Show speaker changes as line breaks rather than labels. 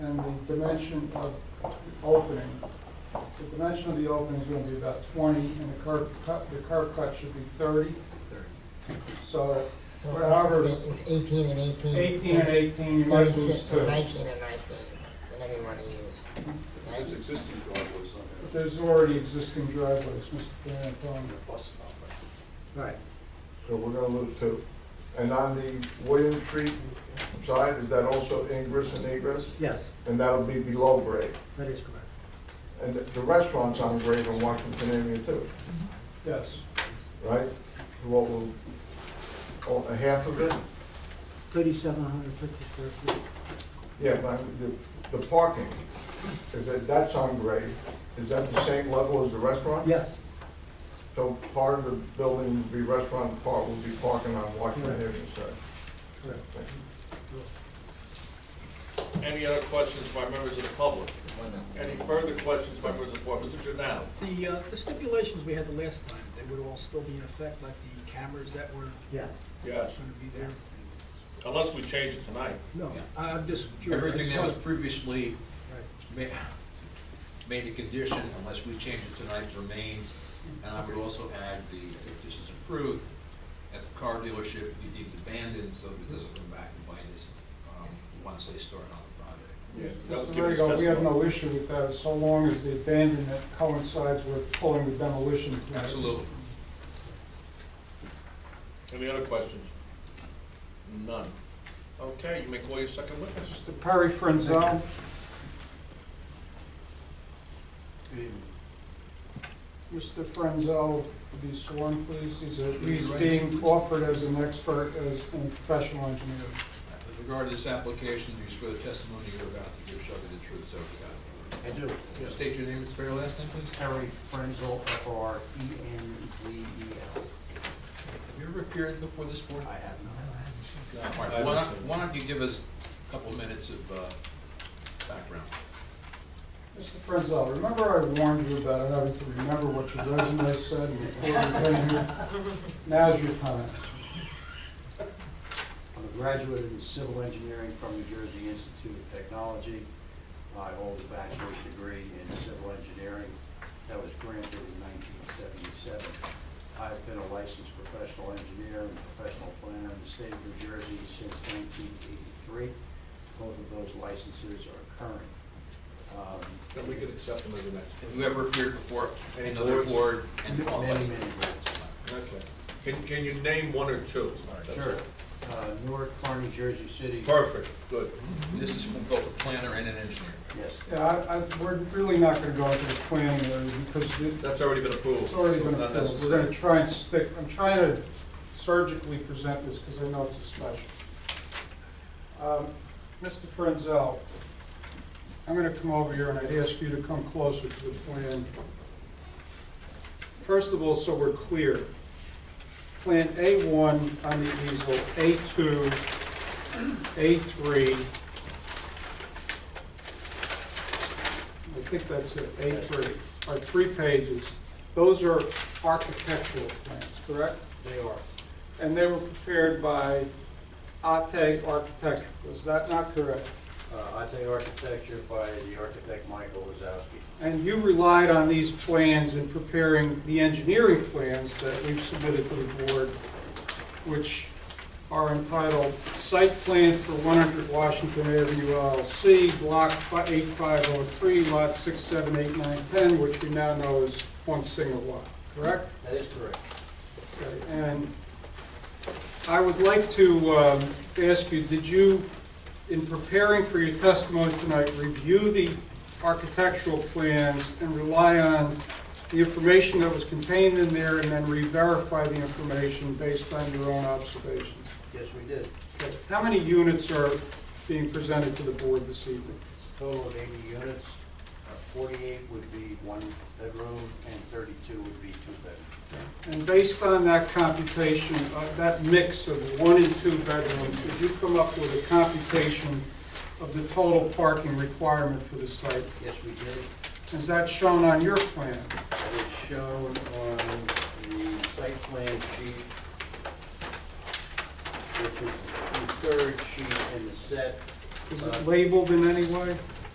dimension of opening. The dimension of the opening is gonna be about twenty, and the curb cut, the curb cut should be thirty. So
So
However-
it's eighteen and eighteen.
eighteen and eighteen, you might lose
Thirty-six, or
two.
nineteen and nineteen, whatever you wanna use.
There's
Right?
existing driveways on there.
There's already existing driveways, Mr. Van Antoni.
The bus stop, I
Right. So we're gonna lose two. And on the William Street side, is that also ingress and egress?
Yes,
And that'll be below grade.
that is correct.
And the restaurant's on grade on Washington Avenue too,
Yes,
right? What will, oh, a half of it?
Thirty-seven hundred fifty square feet.
Yeah, but the, the parking, is that, that's on grade. Is that the same level as the restaurant?
Yes,
So part of the building would be restaurant, and part would be parking on Washington Avenue side.
correct.
Aye. Any other questions by members of the public? Any further questions by members of the board? Mr. Giordano?
The, uh, the stipulations we had the last time, they would all still be in effect, like the cameras that were
Yes.
Yes.
gonna be there?
Unless we change it tonight.
No,
Yeah.
I- I'm just curious.
Everything that was
Right.
previously ma- made a condition, unless we change it tonight, remains. And I would also add the, if this is approved, at the car dealership, be deemed abandoned, so it doesn't come back and bite us, um, once they start on the project.
That was
Mr.
given as
Rego, we have
testimony.
no issue with that, so long as the abandonment coincides with pulling the demolition. plan.
Absolutely.
Any other questions? None. Okay, you may call your second witness.
Mr. Perry Frenzel, Mr. Frenzel, to be sworn, please. He's a- He's being offered as an expert, as a professional engineer.
With regard to this application, do you swear the testimony you're about to give shall be the truth, so help
I do.
you God? State your name and spell your last name, please.
Harry Frenzel, F R E N Z E L.
Have you ever appeared before this board?
I have not.
All right, Why not, why don't you give us a couple minutes of uh, background?
Mr. Frenzel, remember I warned you about having to remember what your resume said before you came here? Now's your time.
I'm a graduate in civil engineering from New Jersey Institute of Technology. I hold a bachelor's degree in civil engineering that was granted in 1977. I've been a licensed professional engineer and professional planner in the state of New Jersey since 1983. Both of those licenses are current. Um,
Then we can accept them as an
Have
expert.
you ever appeared before
Any
another
boards?
board and qualified?
Many, many grants.
Okay. Can, can you name one or two? That's
Sure.
all.
Uh, Newark, Far New Jersey City.
Perfect, good.
This is from both a planner and an engineer.
Yes.
Yeah, I, I, we're really not gonna go into the plan area because it,
That's already been approved.
It's already
so
been
not
approved, we're
necessary.
gonna try and stick, I'm trying to surgically present this, because I know it's a special. Um, Mr. Frenzel, I'm gonna come over here and I'd ask you to come closer to the plan. First of all, so we're clear, Plan A1 on the easel, A2, A3, I think that's it, A3, are three pages. Those are architectural plans, correct?
They are.
And they were prepared by Ate Architectural, is that not correct?
Uh, Ate Architecture by the architect Michael Wazowski.
And you relied on these plans in preparing the engineering plans that we've submitted to the board, which are entitled Site Plan for 100 Washington Avenue LLC, Block fi- 8503, Lot 6, 7, 8, 9, 10, which we now know is one single lot, correct?
That is correct.
Okay, And I would like to um, ask you, did you, in preparing for your testimony tonight, review the architectural plans and rely on the information that was contained in there and then re-verify the information based on your own observations?
Yes, we did.
Okay, How many units are being presented to the board this evening?
Total of 80 units, Uh, 48 would be one bedroom and 32 would be two bedroom.
And based on that computation, uh, that mix of one and two bedrooms, did you come up with a computation of the total parking requirement for the site?
Yes, we did.
Is that shown on your plan?
That is shown on the site plan sheet, which is the third sheet in the set. Uh,
Is it labeled in any way?